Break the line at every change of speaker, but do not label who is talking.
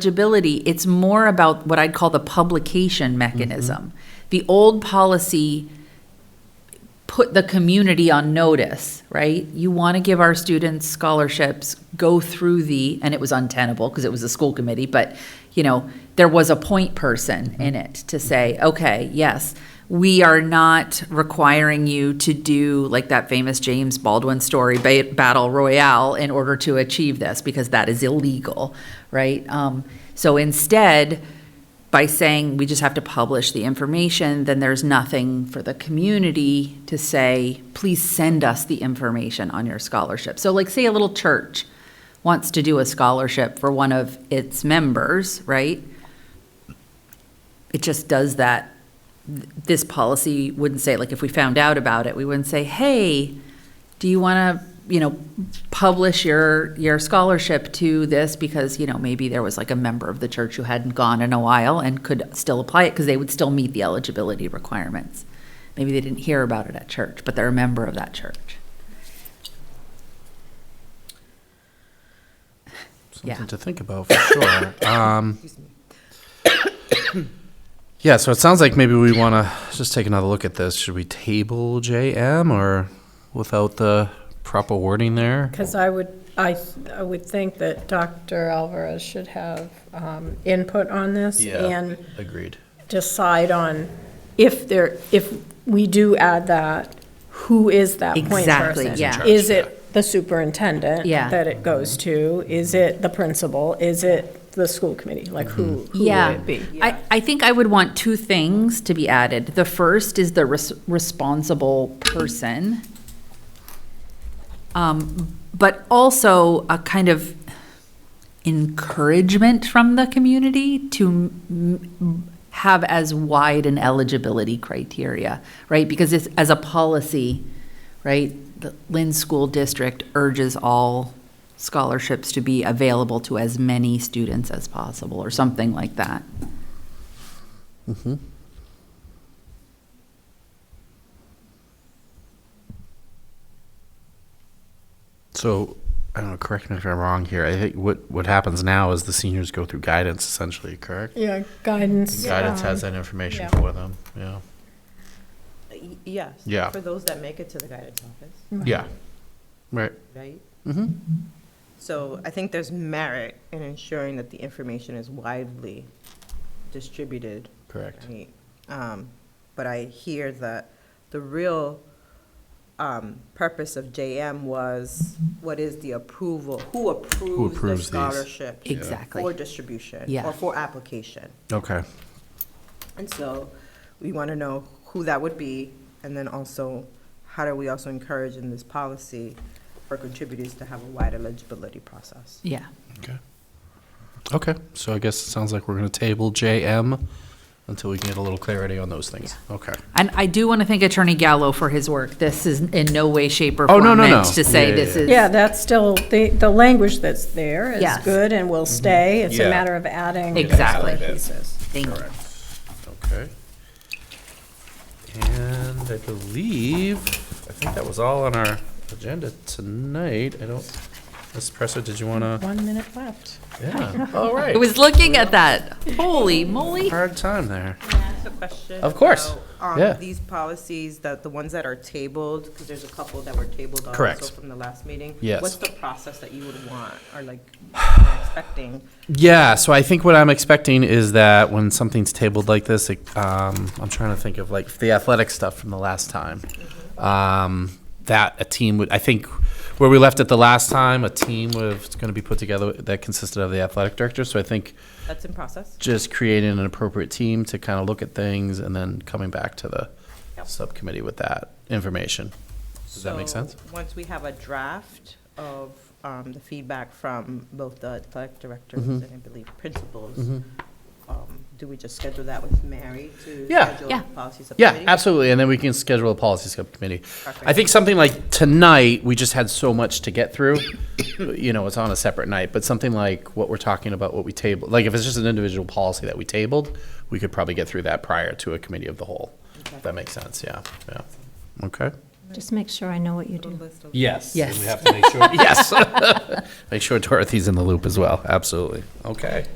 eligibility, it's more about what I'd call the publication mechanism. The old policy put the community on notice, right? You want to give our students scholarships, go through the, and it was untenable because it was a school committee, but, you know, there was a point person in it to say, okay, yes, we are not requiring you to do like that famous James Baldwin story, ba- Battle Royale, in order to achieve this because that is illegal, right? Um, so instead, by saying we just have to publish the information, then there's nothing for the community to say, please send us the information on your scholarship. So like, say a little church wants to do a scholarship for one of its members, right? It just does that. Th- This policy wouldn't say, like, if we found out about it, we wouldn't say, hey, do you want to, you know, publish your, your scholarship to this? Because, you know, maybe there was like a member of the church who hadn't gone in a while and could still apply it because they would still meet the eligibility requirements. Maybe they didn't hear about it at church, but they're a member of that church.
Something
Yeah.
to think about for sure. Um, yeah, so it sounds like maybe we want to just take another look at this. Should we table JM or without the proper wording there?
Because I would, I, I would think that Dr. Alvarez should have um, input on this and
agreed.
decide on if there, if we do add that, who is that point
Exactly,
person?
yeah.
Is it the superintendent?
Yeah.
That it goes to? Is it the principal? Is it the school committee? Like, who, who would
Yeah,
it be?
I, I think I would want two things to be added. The first is the res- responsible person. Um, but also a kind of encouragement from the community to m- m- have as wide an eligibility criteria, right? Because it's, as a policy, right, the Lynn School District urges all scholarships to be available to as many students as possible, or something like that.
So, I don't know, correct me if I'm wrong here. I think what, what happens now is the seniors go through guidance essentially, correct?
Yeah, guidance.
Guidance
um,
has that information
yeah.
for them. Yeah.
Y- Yes.
Yeah.
For those that make it to the guidance office,
Yeah. Right.
right?
Mm-hmm.
So I think there's merit in ensuring that the information is widely distributed.
Correct.
right? Um, But I hear that the real um, purpose of JM was, what is the approval? Who approves the
approves these?
scholarship?
Exactly.
For distribution?
Yeah.
Or for application?
Okay.
And so we want to know who that would be, and then also, how do we also encourage in this policy for contributors to have a wide eligibility process?
Yeah.
Okay. Okay, so I guess it sounds like we're gonna table JM until we can get a little clarity on those things. Okay.
And I do want to thank Attorney Gallo for his work. This is in no way, shape, or
Oh,
form
no, no,
meant
no.
to say
Yeah,
this
yeah,
is.
Yeah, that's still, the, the language that's there is
Yes.
good and will stay. It's a
Yeah.
matter of adding.
Exactly.
Pieces.
Thank you.
Okay. And I believe, I think that was all on our agenda tonight. I don't, Ms. Presser, did you wanna?
One minute left.
Yeah, all
I
right.
was looking at that. Holy moly.
Hard time there.
a question?
Of course.
about,
Yeah.
Um, these policies, that the ones that are tabled, because there's a couple that were tabled
Correct.
also from the last meeting.
Yes.
What's the process that you would want, or like, you're expecting?
Yeah, so I think what I'm expecting is that when something's tabled like this, it, um, I'm trying to think of like the athletic stuff from the last time. Um, that a team would, I think, where we left it the last time, a team was going to be put together that consisted of the athletic director. So I think
That's in process?
just creating an appropriate team to kind of look at things and then coming back to the
Yep.
subcommittee with that information. Does that make
So,
sense?
Once we have a draft of um, the feedback from both the athletic directors
Mm-hmm.
and I believe principals, um, do we just schedule that with Mary to
Yeah.
schedule
Yeah.
the policy
Yeah,
subcommittee?
absolutely. And then we can schedule a policy subcommittee. I
Perfect.
think something like tonight, we just had so much to get through. You know, it's on a separate night, but something like what we're talking about, what we tabled, like if it's just an individual policy that we tabled, we could probably get through that prior to a committee of the whole. If that makes sense, yeah, yeah. Okay?
Just make sure I know what you do.
List of-
Yes.
Yes.
have to make sure. Yes. Make sure Dorothy's in the loop as well, absolutely. Okay.